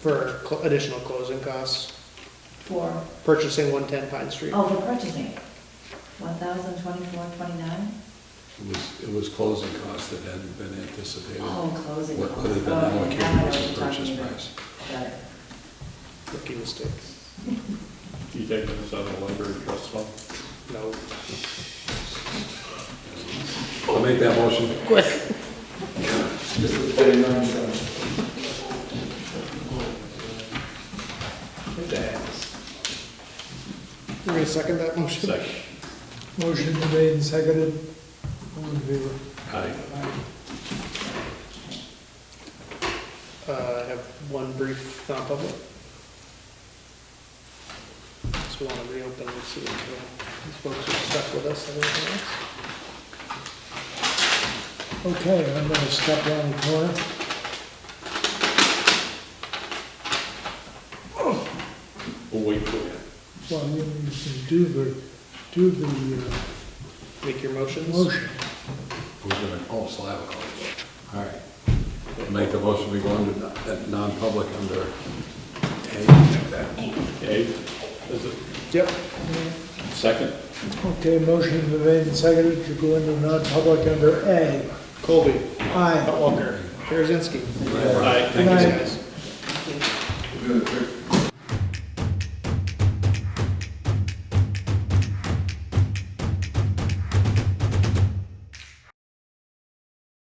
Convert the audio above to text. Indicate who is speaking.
Speaker 1: for cl- additional closing costs,
Speaker 2: for,
Speaker 1: purchasing 110 Pine Street.
Speaker 2: oh, for purchasing, one thousand twenty-four, twenty-nine?
Speaker 3: It was, it was closing costs that hadn't been anticipated.
Speaker 2: Oh, closing
Speaker 3: What
Speaker 2: costs.
Speaker 3: what had been
Speaker 2: Okay, now I know
Speaker 3: allocated
Speaker 2: what
Speaker 3: as
Speaker 2: you're
Speaker 3: the purchase
Speaker 2: talking about.
Speaker 3: price.
Speaker 2: Got it.
Speaker 1: Rookie mistake.
Speaker 4: You taking this out of the library trust fund?
Speaker 1: No.
Speaker 3: I'll make that motion.
Speaker 1: You're gonna second that motion?
Speaker 4: Second.
Speaker 5: Motion been made and seconded. All in favor?
Speaker 3: Aye.
Speaker 1: Uh, I have one brief non-public. Just want to reopen and see if uh, these folks are stuck with us. and everything else.
Speaker 5: Okay, I'm gonna step down the corner.
Speaker 4: We'll wait for you.
Speaker 5: Well, you can do the, do the uh,
Speaker 1: Make your motions.
Speaker 5: motion.
Speaker 3: Who's gonna, oh, Slavikov. All right. I'll Make the motion, we go into non- that non-public under A.
Speaker 4: Okay, is it
Speaker 1: Yep.
Speaker 4: second?
Speaker 5: Okay, motion been made and seconded to go into non-public under A.
Speaker 1: Colby,
Speaker 5: Aye.
Speaker 1: Hot Walker, Karazinski.
Speaker 4: Aye.
Speaker 5: Good night.
Speaker 1: guys.
Speaker 3: Good.